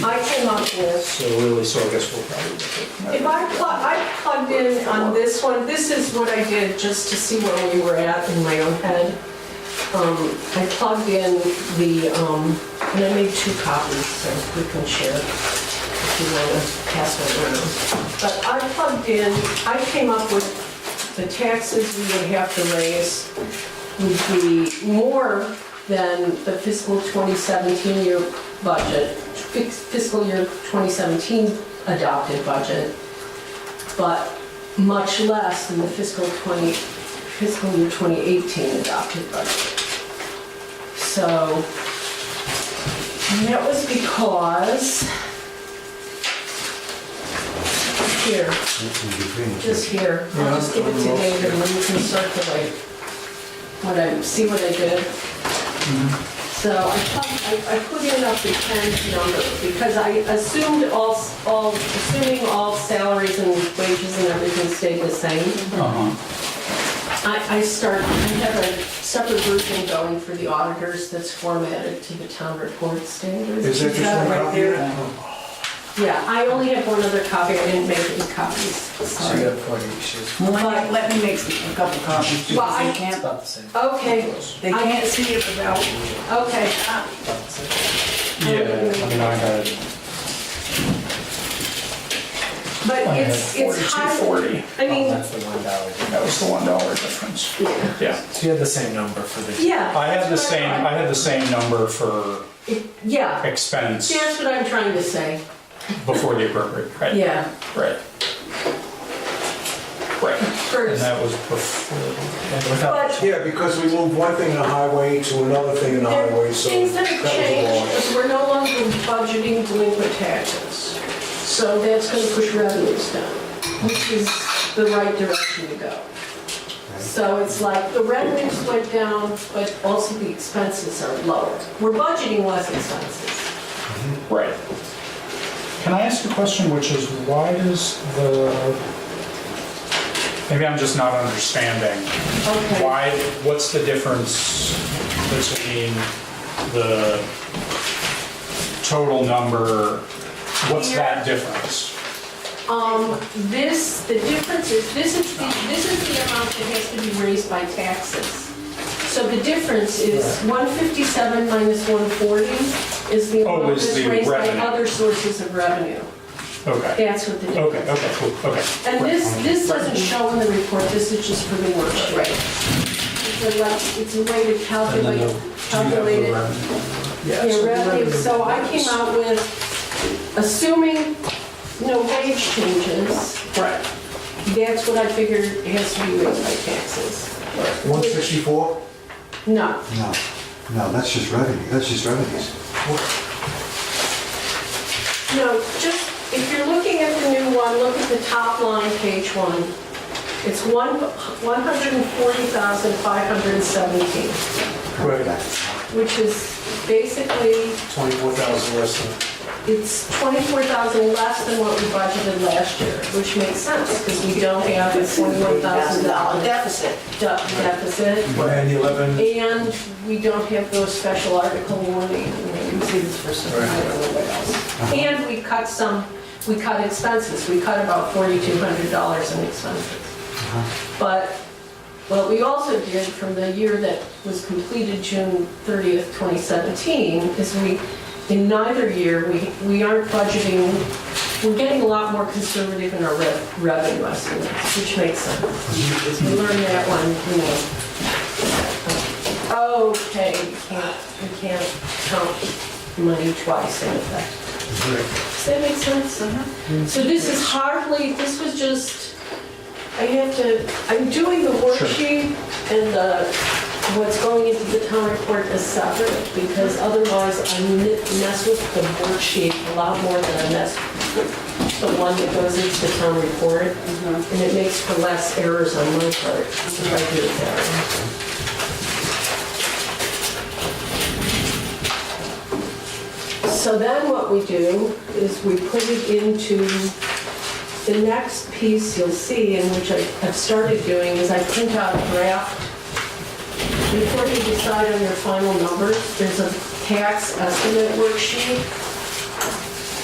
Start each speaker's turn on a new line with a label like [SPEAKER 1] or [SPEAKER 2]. [SPEAKER 1] came up with,
[SPEAKER 2] So really, so I guess we'll probably look
[SPEAKER 1] if I plug, I plugged in on this one, this is what I did just to see where we were at in my own head. Um, I plugged in the, um, and I made two copies, so we can share if you wanna pass it around. But I plugged in, I came up with the taxes we would have to raise would be more than the fiscal 2017 year budget, fis- fiscal year 2017 adopted budget, but much less than the fiscal 20, fiscal year 2018 adopted budget. So, and that was because, here, just here, I'll just give it to David and you can circulate what I, see what I did.
[SPEAKER 2] Mm-hmm.
[SPEAKER 1] So I put, I I put in up the 10 number because I assumed all, s- all, assuming all salaries and wages and everything stayed the same.
[SPEAKER 3] Uh-huh.
[SPEAKER 1] I, I start, I have a separate grouping going for the auditors that's formatted to the town report standards.
[SPEAKER 2] at it. Is that just one
[SPEAKER 1] Right
[SPEAKER 2] copy?
[SPEAKER 1] there. Yeah, I only have one other copy, I didn't make any copies,
[SPEAKER 2] So you
[SPEAKER 1] sorry.
[SPEAKER 2] got forty, she's.
[SPEAKER 4] Let me- let me make a couple copies because
[SPEAKER 1] Why?
[SPEAKER 4] they can't,
[SPEAKER 2] About the same.
[SPEAKER 1] Okay,
[SPEAKER 4] they can't see it without.
[SPEAKER 1] okay, uh,
[SPEAKER 2] About the same.
[SPEAKER 3] Yeah, I mean, I had
[SPEAKER 1] but it's, it's high,
[SPEAKER 3] 4240.
[SPEAKER 1] I
[SPEAKER 2] Oh,
[SPEAKER 1] mean,
[SPEAKER 2] That's the one dollar.
[SPEAKER 3] That was the one dollar difference.
[SPEAKER 1] yeah.
[SPEAKER 3] Yeah.
[SPEAKER 2] So you had the same number for the.
[SPEAKER 1] Yeah.
[SPEAKER 3] Oh, I had the
[SPEAKER 1] that's what
[SPEAKER 3] same, I had the same number for
[SPEAKER 1] It- Yeah,
[SPEAKER 3] expense
[SPEAKER 1] that's what I'm trying to say,
[SPEAKER 3] before the appropriate, right?
[SPEAKER 1] yeah.
[SPEAKER 3] Right. Right.
[SPEAKER 1] For-
[SPEAKER 3] And that was before,
[SPEAKER 2] And without-
[SPEAKER 1] But
[SPEAKER 5] Yeah, because we moved one thing in the highway to another thing in the
[SPEAKER 1] there
[SPEAKER 5] highway,
[SPEAKER 1] are
[SPEAKER 5] so.
[SPEAKER 1] things that have
[SPEAKER 5] was a
[SPEAKER 1] changed,
[SPEAKER 5] lot.
[SPEAKER 1] is we're no longer budgeting delinquent taxes. So that's gonna push revenues down, which is the right direction to go. So it's like, the revenues went down, but also the expenses are lower. We're budgeting less expenses.
[SPEAKER 3] right. Can I ask a question, which is why does the, maybe I'm just not understanding.
[SPEAKER 1] Okay,
[SPEAKER 3] Why, what's the difference between the total number? What's that difference?
[SPEAKER 1] um, this, the difference is, this is the, this is the amount that has to be raised by taxes. So the difference is 157 minus 140 is the
[SPEAKER 3] Oh,
[SPEAKER 1] amount
[SPEAKER 3] is
[SPEAKER 1] that's
[SPEAKER 3] the
[SPEAKER 1] raised by
[SPEAKER 3] revenue.
[SPEAKER 1] other sources of revenue.
[SPEAKER 3] Okay,
[SPEAKER 1] That's what the difference.
[SPEAKER 3] okay, okay, cool, okay.
[SPEAKER 1] And this, this doesn't show in the report, this is just for the worksheet. It's a way- It's a way to calculate, calculate it.
[SPEAKER 2] Yeah,
[SPEAKER 1] Yeah,
[SPEAKER 2] so the
[SPEAKER 1] revenue,
[SPEAKER 2] revenue-
[SPEAKER 1] so I came out with, assuming no wage changes,
[SPEAKER 3] Right.
[SPEAKER 1] that's what I figured has to be raised by taxes.
[SPEAKER 5] 164?
[SPEAKER 1] No,
[SPEAKER 6] No, no, that's just revenue, that's just revenues.
[SPEAKER 1] no, just, if you're looking at the new one, look at the top line, page one. It's one, 140,517,
[SPEAKER 5] Right.
[SPEAKER 1] which is basically,
[SPEAKER 5] 24,000 less than.
[SPEAKER 1] it's 24,000 less than what we budgeted last year, which makes sense, because we don't have a
[SPEAKER 4] $1,000
[SPEAKER 1] $41,000
[SPEAKER 4] deficit.
[SPEAKER 1] deficit.
[SPEAKER 2] And 11,
[SPEAKER 1] And we don't have those special article warning, we can see this for some, I don't know what else. And we cut some, we cut expenses, we cut about forty-two hundred dollars in expenses. But what we also did from the year that was completed, June thirtieth, twenty seventeen, is we, in neither year, we, we aren't budgeting, we're getting a lot more conservative in our rev- revenue estimates, which makes sense. We learned that one, you know. Okay, you can't, you can't count money twice in effect. Does that make sense? So this is hardly, this was just, I have to, I'm doing the worksheet and the, what's going into the town report is separate because otherwise I n- mess with the worksheet a lot more than I mess with the one that goes into the town report. And it makes for less errors on my part if I do it that way. So then what we do is we put it into, the next piece you'll see, and which I- I've started doing, is I print out a draft. Before you decide on your final numbers, there's a tax estimate worksheet